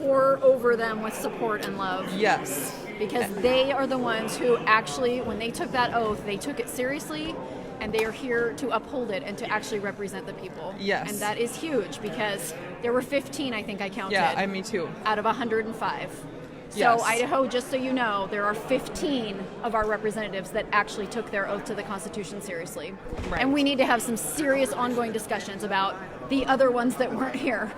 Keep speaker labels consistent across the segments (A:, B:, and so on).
A: pour over them with support and love
B: Yes.
A: because they are the ones who actually, when they took that oath, they took it seriously and they are here to uphold it and to actually represent the people.
B: Yes.
A: And that is huge because there were 15, I think I counted,
B: Yeah, I me too.
A: out of 105. So,
B: Yes.
A: Idaho, just so you know, there are 15 of our representatives that actually took their oath to the Constitution seriously.
B: Right.
A: And we need to have some serious ongoing discussions about the other ones that weren't here.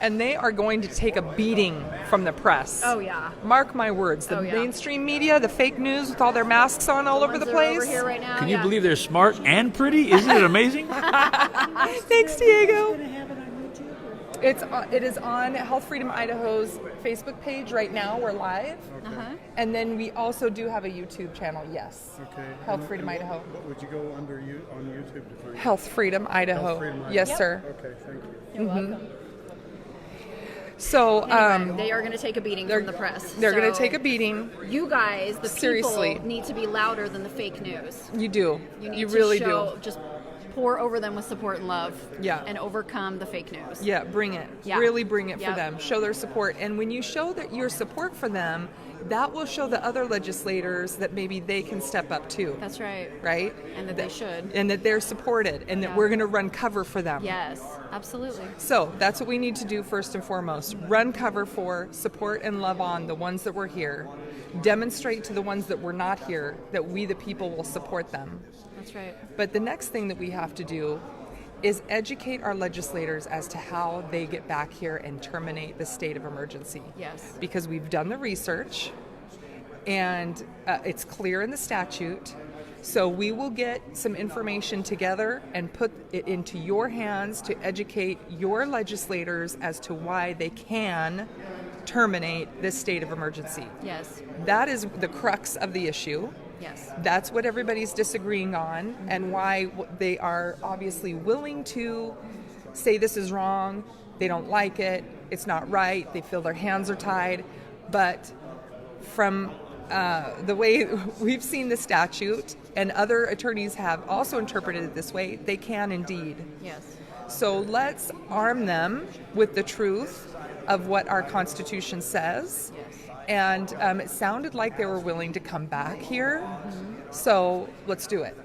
B: And they are going to take a beating from the press.
A: Oh, yeah.
B: Mark my words. The
A: Oh, yeah.
B: mainstream media, the fake news with all their masks on all over
A: Ones
B: the
A: that are over
B: place.
A: here right now,
C: Can you
A: yeah.
C: believe they're smart and pretty? Isn't it amazing?
B: Thanks, Diego. It's on, it is on Health Freedom Idaho's Facebook page right now. We're live,
A: Uh-huh.
B: and then we also do have a YouTube channel. Yes.
D: Okay.
B: Health
D: And-
B: Freedom
D: and
B: Idaho.
D: What, what would you go under you on YouTube to find?
B: Health Freedom Idaho.
D: Health Freedom Idaho.
B: Yes, sir. Mm-hmm.
D: Okay, thank you.
A: You're welcome.
B: So um,
A: Anyway, they are going to take a beating
B: they're
A: from the press.
B: They're going to
A: So
B: take a beating.
A: You guys, the
B: Seriously.
A: people, need to be louder than the fake news.
B: You do.
A: You need to
B: really
A: show, just pour over them with support and love.
B: Yeah.
A: And overcome the fake news.
B: do. Yeah, bring it.
A: Yeah.
B: Really bring it for
A: Yep.
B: them. Show their support. And when you show that your support for them, that will show the other legislators that maybe they can step up too.
A: That's right.
B: right?
A: And that they should.
B: And that they're supported and that
A: Yeah.
B: we're going to run cover for them.
A: Yes, absolutely.
B: So that's what we need to do first and foremost run cover for, support and love on the ones that were here, demonstrate to the ones that were not here that we, the people, will support them.
A: That's right.
B: But the next thing that we have to do is educate our legislators as to how they get back here and terminate the state of emergency.
A: Yes.
B: Because we've done the research and uh, it's clear in the statute. So we will get some information together and put it into your hands to educate your legislators as to why they can terminate this state of emergency.
A: Yes.
B: That is the crux of the issue.
A: Yes.
B: That's what everybody's disagreeing on, and why w- they are obviously willing to say this is wrong, they don't like it, it's not right, they feel their hands are tied. But from uh, the way we've seen the statute, and other attorneys have also interpreted it this way, they can indeed.
A: Yes.
B: So let's arm them with the truth of what our Constitution says. And um, it sounded like they were willing to come back here. So let's do it.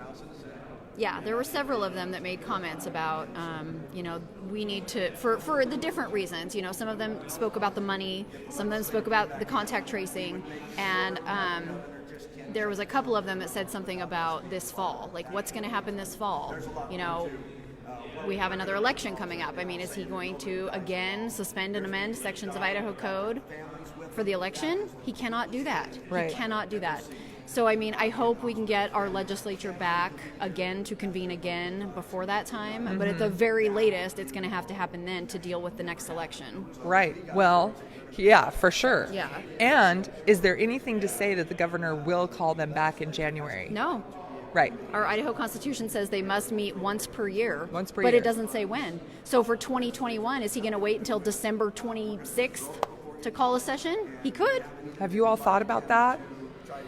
A: Yeah, there were several of them that made comments about, um, you know, we need to, for, for the different reasons. You know, some of them spoke about the money, some of them spoke about the contact tracing, and um, there was a couple of them that said something about this fall. Like, what's going to happen this fall? You know, we have another election coming up. I mean, is he going to again suspend and amend sections of Idaho Code for the election? He cannot do that.
B: Right.
A: He cannot do that. So, I mean, I hope we can get our legislature back again to convene again before that time. But at the very latest, it's going to have to happen then to deal with the next election.
B: Right. Well, yeah, for sure.
A: Yeah.
B: And is there anything to say that the governor will call them back in January?
A: No.
B: Right.
A: Our Idaho Constitution says they must meet once per year.
B: Once per
A: but
B: year.
A: it doesn't say when. So for 2021, is he going to wait until December 26th to call a session? He could.
B: Have you all thought about that?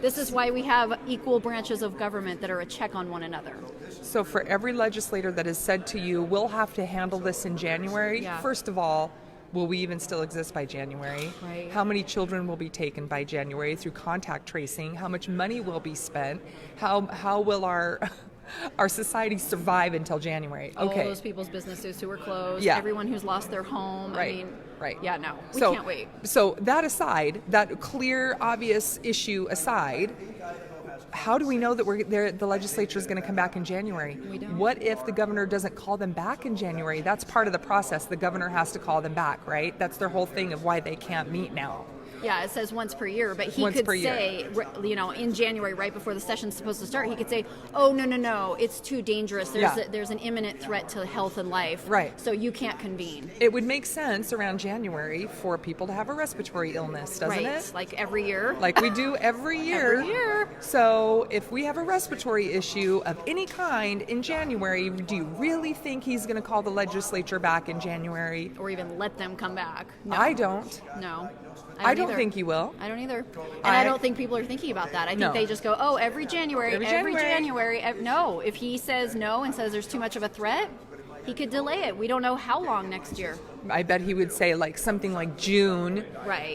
A: This is why we have equal branches of government that are a check on one another.
B: So, for every legislator that has said to you, we'll have to handle this in January,
A: Yeah.
B: first of all, will we even still exist by January?
A: Right.
B: How many children will be taken by January through contact tracing? How much money will be spent? How, how will our, our society survive until January?
A: All
B: okay.
A: those people's businesses who are closed,
B: Yeah.
A: everyone who's lost their home.
B: Right.
A: I mean,
B: right.
A: Yeah, no. We
B: so,
A: can't wait.
B: So that aside, that clear, obvious issue aside, how do we know that we're there? The legislature is going to come back in January.
A: We don't.
B: What if the governor doesn't call them back in January? That's part of the process. The governor has to call them back, right? That's their whole thing of why they can't meet now.
A: Yeah, it says once per year, but he
B: Once
A: could
B: per year.
A: say, r- you know, in January, right before the session's supposed to start, he could say, "Oh no, no, no, it's too dangerous. There's
B: Yeah.
A: a, there's an imminent threat to health and life.
B: Right.
A: So you can't convene.
B: It would make sense around January for people to have a respiratory illness, doesn't
A: right.
B: it?
A: Like every year.
B: Like we do every year.
A: Every year.
B: So, if we have a respiratory issue of any kind in January, do you really think he's going to call the legislature back in January?
A: or even let them come back. No,
B: I don't.
A: no.
B: I don't
A: either.
B: think he will.
A: I don't either. And
B: I-
A: I, don't think people are thinking about that. I think
B: No.
A: they just go, oh, every January,
B: Every
A: every, January.
B: January."
A: ev- no, if he says no and says there's too much of a threat, He could delay it. We don't know how long next year.
B: I bet he would say like something like June.
A: Right.